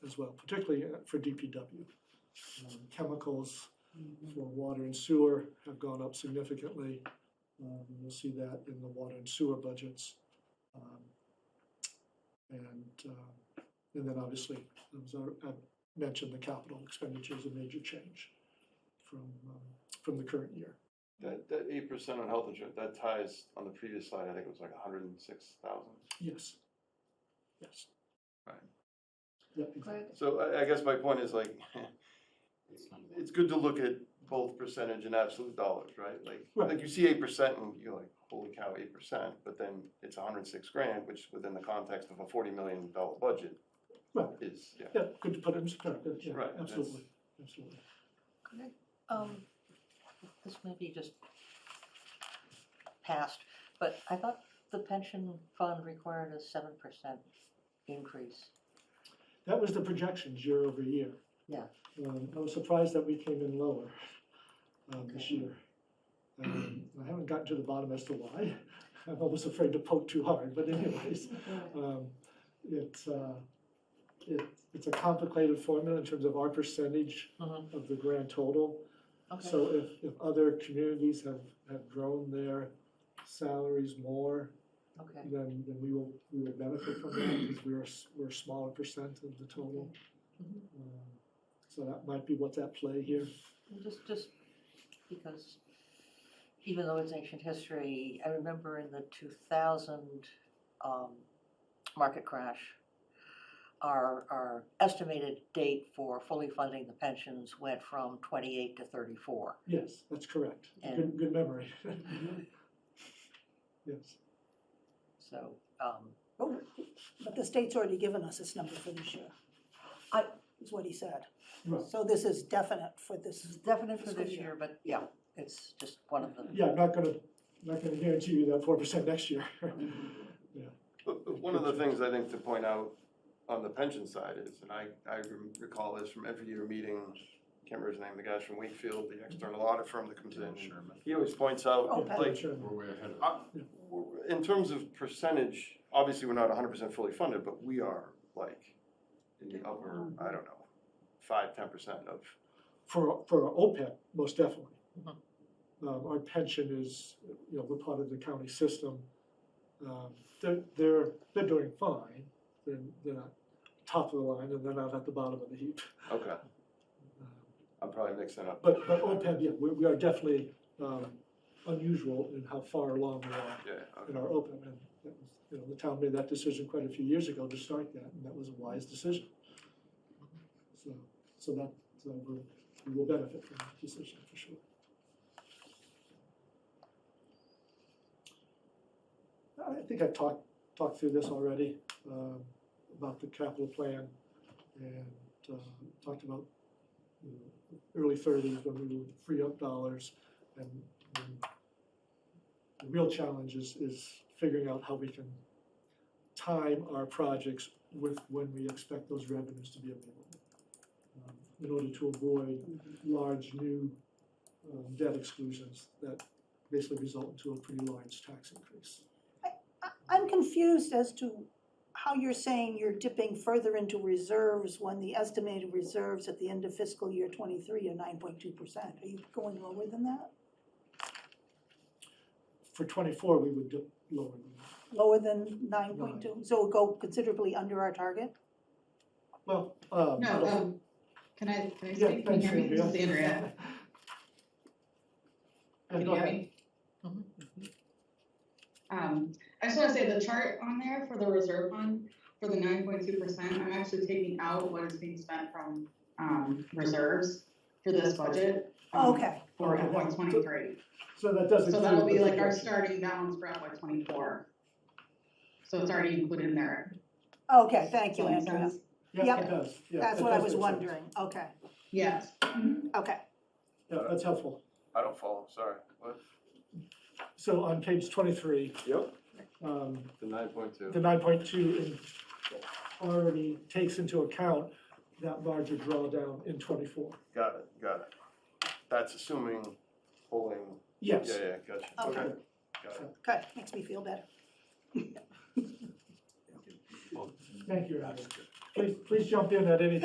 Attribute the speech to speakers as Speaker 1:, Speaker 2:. Speaker 1: as well, particularly uh, for DPW. Um, Chemicals for water and sewer have gone up significantly. Um, and You'll see that in the water and sewer budgets. Um, And, uh, and then obviously, as I I mentioned, the capital expenditure is a major change from, um, from the current year.
Speaker 2: That, that eight percent on health insurance, that ties on the previous slide, I think it was like hundred and six thousand.
Speaker 1: Yes. Yes.
Speaker 2: Right.
Speaker 1: Yeah, exactly.
Speaker 3: But
Speaker 2: So I, I guess my point is like,
Speaker 4: not bad.
Speaker 2: it's good to look at both percentage and absolute dollars, right? Like,
Speaker 1: Right.
Speaker 2: like you see eight percent and you're like, holy cow, eight percent, but then it's hundred and six grand, which within the context of a forty million dollar budget
Speaker 1: Right.
Speaker 2: is, yeah.
Speaker 1: Yeah, good to put it in perspective, yeah,
Speaker 2: Right, that's-
Speaker 1: absolutely, absolutely.
Speaker 3: um, this may be just past, but I thought the pension fund required a seven percent increase.
Speaker 1: That was the projections year over year.
Speaker 3: Yeah.
Speaker 1: Um, I was surprised that we came in lower, um, this
Speaker 3: Okay.
Speaker 1: year. Um, I haven't gotten to the bottom as to why, I'm always afraid to poke too hard, but anyways,
Speaker 3: Mm-hmm.
Speaker 1: um, it's, uh, it, it's a complicated formula in terms of our percentage
Speaker 3: Mhm.
Speaker 1: of the grand total.
Speaker 3: Okay,
Speaker 1: So if, if other communities have, have grown their salaries more,
Speaker 3: okay.
Speaker 1: then, then we will, we will benefit from that because we're, a s- we're a smaller percent of the total.
Speaker 3: Mhm.
Speaker 1: Um, So that might be what's at play here.
Speaker 3: Just, just because even though it's ancient history, I remember in the two thousand, um, market crash, our, our estimated date for fully funding the pensions went from twenty-eight to thirty-four.
Speaker 1: Yes, that's correct. Good,
Speaker 3: And-
Speaker 1: good memory. Yes,
Speaker 3: So, um,
Speaker 5: Oh, But the state's already given us this number for this year.
Speaker 3: I-
Speaker 5: Is what he said.
Speaker 1: right.
Speaker 5: So this is definite for
Speaker 3: this
Speaker 5: this,
Speaker 3: is definite for
Speaker 5: Fiscal
Speaker 3: this
Speaker 5: year.
Speaker 3: year, but yeah, it's just one of the,
Speaker 1: Yeah, I'm not gonna, not gonna guarantee you that four percent next year.
Speaker 2: But but one of the things I think to point out on the pension side is, and I, I rem- recall this from every year meeting, can't remember his name, the guy from Wakefield, the external audit firm that comes in.
Speaker 4: Sherman.
Speaker 2: He always points
Speaker 5: Oh,
Speaker 2: out,
Speaker 5: Pat.
Speaker 2: like,
Speaker 1: Sure.
Speaker 4: We're way ahead of.
Speaker 2: uh, in terms of percentage, obviously, we're not hundred percent fully funded, but we are like in the upper, I don't know, five, ten percent of,
Speaker 1: For, for our OPEB, most definitely.
Speaker 3: Mhm.
Speaker 1: Um, our pension is, you know, we're part of the county system. Um, they're, they're, they're doing fine. They're, they're not top of the line and they're not at the bottom of the heap.
Speaker 2: okay,
Speaker 1: Um,
Speaker 2: I'm probably mixing up.
Speaker 1: But, but OPEB, yeah, we, we are definitely, um, unusual in how far along we are
Speaker 2: Yeah,
Speaker 1: uh, in
Speaker 2: okay,
Speaker 1: our OPEB. And that was, you know, the town made that decision quite a few years ago to start that, and that was a wise decision. So, so that, so we'll, we will benefit from that decision for sure. I I think I've talked, talked through this already, um, about the capital plan and, uh, talked about you know, early thirties when we would free up dollars and and the real challenge is, is figuring out how we can time our projects with when we expect those revenues to be available. um, In order to avoid large new um, debt exclusions that basically result into a pretty large tax increase.
Speaker 5: I- I'm confused as to how you're saying you're dipping further into reserves when the estimated reserves at the end of fiscal year twenty-three are nine point two percent. Are you going lower than that?
Speaker 1: For twenty-four, we would dip lower than that.
Speaker 5: Lower than nine point two? So it'll go considerably under our target?
Speaker 1: Well, um.
Speaker 6: No, um, can I, can I speak? Can you hear me? This is Andrea. Can you hear me?
Speaker 3: Mhm.
Speaker 6: Um, I just wanna say the chart on there for the reserve fund, for the nine point two percent, I'm actually taking out what is being spent from, um, reserves for this budget. um,
Speaker 5: Oh, Okay,
Speaker 6: For FY twenty-three.
Speaker 1: So that doesn't.
Speaker 6: So that'll be like our starting balance for FY twenty-four. So it's already included in there.
Speaker 5: okay, thank
Speaker 6: Does
Speaker 5: you,
Speaker 6: that make
Speaker 5: Andrea.
Speaker 6: sense?
Speaker 1: Yeah,
Speaker 5: Yep.
Speaker 1: it does, yeah.
Speaker 5: That's
Speaker 1: it
Speaker 5: what I
Speaker 1: does
Speaker 5: was
Speaker 1: make sense.
Speaker 5: wondering. Okay,
Speaker 6: Yes.
Speaker 5: okay.
Speaker 1: Yeah, that's helpful.
Speaker 2: I don't follow, sorry, what?
Speaker 1: So on page twenty-three,
Speaker 2: Yep.
Speaker 1: um,
Speaker 2: The nine point two.
Speaker 1: the nine point two already takes into account that larger drawdown in twenty-four.
Speaker 2: Got it, got it. That's assuming pulling, yeah,
Speaker 1: Yes.
Speaker 2: yeah, gotcha,
Speaker 5: Okay.
Speaker 2: okay, got it.
Speaker 5: Good, makes me feel better.
Speaker 1: Thank you, Adam. Please, please jump in at any